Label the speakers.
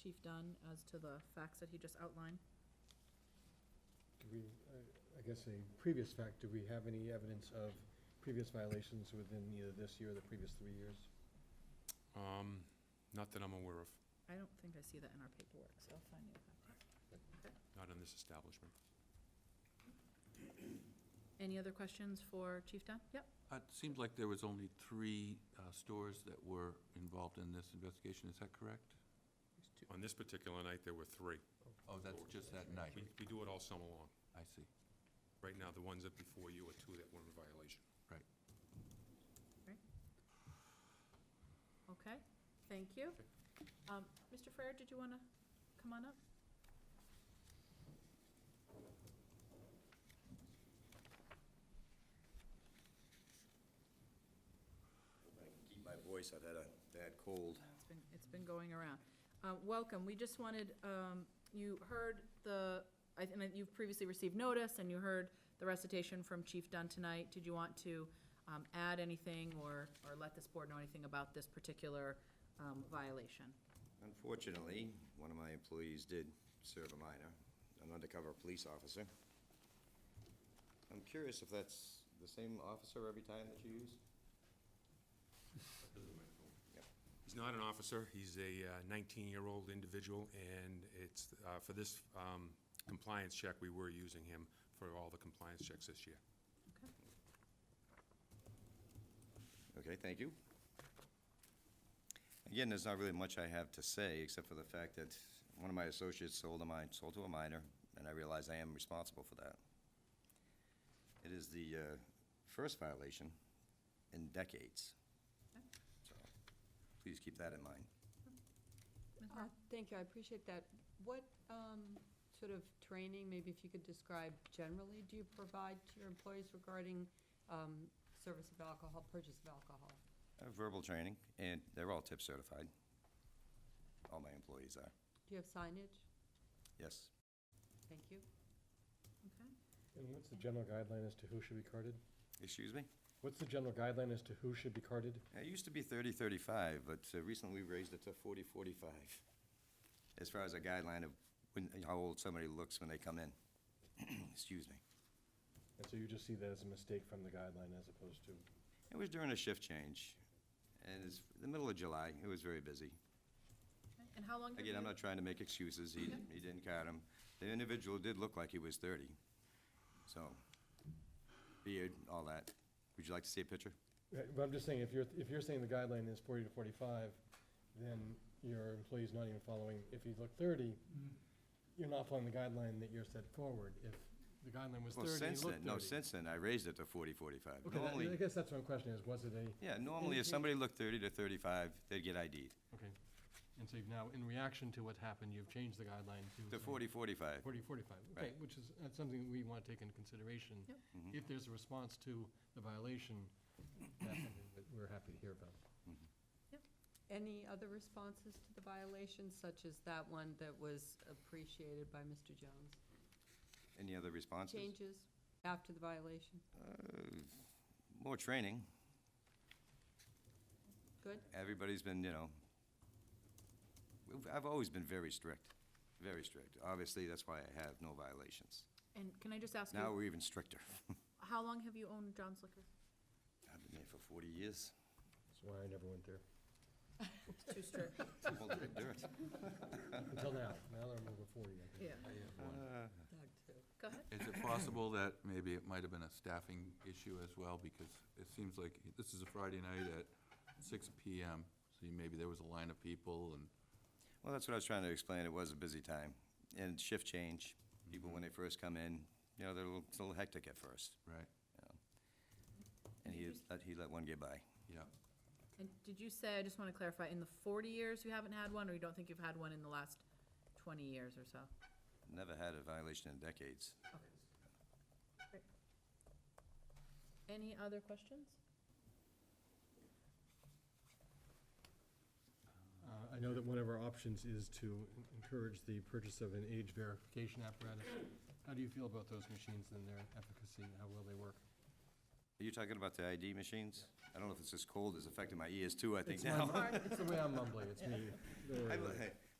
Speaker 1: Chief Dunn as to the facts that he just outlined.
Speaker 2: Do we, I- I guess a previous fact, do we have any evidence of previous violations within either this year or the previous three years?
Speaker 3: Um, not that I'm aware of,
Speaker 1: I don't think I see that in our paperwork, so I'll find you.
Speaker 3: not in this establishment.
Speaker 1: Any other questions for Chief Dunn? Yep.
Speaker 4: Uh, It seems like there was only three uh, stores that were involved in this investigation, is that correct?
Speaker 3: On this particular night, there were three.
Speaker 4: Oh, that's just that
Speaker 3: We,
Speaker 4: night,
Speaker 3: we do it all summer long.
Speaker 4: I see.
Speaker 3: Right now, the ones that before you are two that were in violation.
Speaker 1: Okay, thank you. Um, Mr. Frere, did you want to come on up?
Speaker 5: I can keep my voice, I've had a bad cold.
Speaker 1: It's been, it's been going around. Uh, Welcome, we just wanted, um, you heard the, I think you've previously received notice, and you heard the recitation from Chief Dunn tonight. Did you want to um, add anything or, or let this board know anything about this particular um, violation?
Speaker 5: Unfortunately, one of my employees did serve a minor, an undercover police officer. I'm curious if that's the same officer every time that you use? Yep.
Speaker 3: He's not an officer, he's a uh, nineteen-year-old individual, and it's, uh, for this, um, compliance check, we were using him for all the compliance checks this year.
Speaker 1: Okay.
Speaker 5: Okay, thank you. Again, there's not really much I have to say, except for the fact that one of my associates sold a mine, sold to a minor, and I realize I am responsible for that. It is the uh, first violation in decades.
Speaker 1: Okay.
Speaker 5: So, Please keep that in mind.
Speaker 1: Ms.
Speaker 6: Uh,
Speaker 1: Mar-
Speaker 6: Thank you, I appreciate that. What um, sort of training, maybe if you could describe generally, do you provide to your employees regarding um, service of alcohol, purchase of alcohol?
Speaker 5: I have Uh, Verbal training, and they're all tip certified. All my employees are,
Speaker 6: Do you have signage?
Speaker 5: yes.
Speaker 6: Thank you.
Speaker 1: Okay.
Speaker 2: And what's the general guideline as to who should be carded?
Speaker 5: Excuse me?
Speaker 2: What's the general guideline as to who should be carded?
Speaker 5: It used to be 30, 35, but uh, recently we raised it to 40, 45, as far as a guideline of when, how old somebody looks when they come in. Excuse me.
Speaker 2: And so you just see that as a mistake from the guideline as opposed to,
Speaker 5: It was during a shift change, and it's the middle of July. It was very busy.
Speaker 1: Okay. And how long have
Speaker 5: Again, I'm
Speaker 1: you,
Speaker 5: not trying to make excuses. He, he didn't count him. The individual did look like he was 30, so beard, all that. Would you like to see a picture?
Speaker 2: Right, eh, but I'm just saying, if you're, if you're saying the guideline is forty to forty-five, then your employee's not even following, if you look thirty, you're not following the guideline that you're set forward. If the guideline was
Speaker 5: Well,
Speaker 2: thirty, you
Speaker 5: since
Speaker 2: look
Speaker 5: then, no,
Speaker 2: thirty.
Speaker 5: since then, I raised it to 40, 45.
Speaker 2: Okay, that- I
Speaker 5: Normally,
Speaker 2: guess that's what my question is, was it a?
Speaker 5: yeah, normally if somebody looked 30 to 35, they'd get ID'd.
Speaker 2: Okay, and so you've now, in reaction to what happened, you've changed the guideline to.
Speaker 5: To 40, 45.
Speaker 2: 40, 45, okay,
Speaker 5: Right.
Speaker 2: which is, that's something we want to take into consideration.
Speaker 1: Yep.
Speaker 2: If there's a response to the violation, that's something that we're happy to hear about.
Speaker 6: Any other responses to the violations, such as that one that was appreciated by Mr. Jones?
Speaker 5: Any other responses?
Speaker 6: Changes after the violation?
Speaker 5: More training.
Speaker 6: Good?
Speaker 5: Everybody's been, you know, we've- I've always been very strict, very strict. Obviously, that's why I have no violations.
Speaker 1: and can I just ask
Speaker 5: Now
Speaker 1: you,
Speaker 5: we're even stricter.
Speaker 1: how long have you owned John's Liquor?
Speaker 5: I've been there for 40 years.
Speaker 2: That's why I never went there,
Speaker 1: It's too strict.
Speaker 5: Well, the dirt.
Speaker 2: until now, now that I'm over 40, I think.
Speaker 1: Yeah,
Speaker 4: I have
Speaker 2: Uh,
Speaker 4: one.
Speaker 6: Doug, too.
Speaker 1: go ahead.
Speaker 4: Is it possible that maybe it might have been a staffing issue as well? Because it seems like, this is a Friday night at six PM, so maybe there was a line of people and
Speaker 5: Well, that's what I was trying to explain. It was a busy time. And shift change, people when they first come in, you know, they're a little it's a little hectic at first.
Speaker 4: Right,
Speaker 5: you know. And he let, he let one get by.
Speaker 4: yeah.
Speaker 1: And did you say, I just want to clarify, in the 40 years you haven't had one, or you don't think you've had one in the last 20 years or so?
Speaker 5: Never had a violation in decades.
Speaker 1: Any other questions?
Speaker 2: Uh, I know that one of our options is to en- encourage the purchase of an age verification apparatus. How do you feel about those machines and their efficacy, how well they work?
Speaker 5: Are you talking about the ID machines? I don't know if it's this cold, it's affecting my ears too, I think
Speaker 2: It's my
Speaker 5: now.
Speaker 2: mum- It's the way I'm mumbling, it's me. Don't worry
Speaker 5: I
Speaker 2: about
Speaker 5: bel-
Speaker 2: it.
Speaker 5: hey,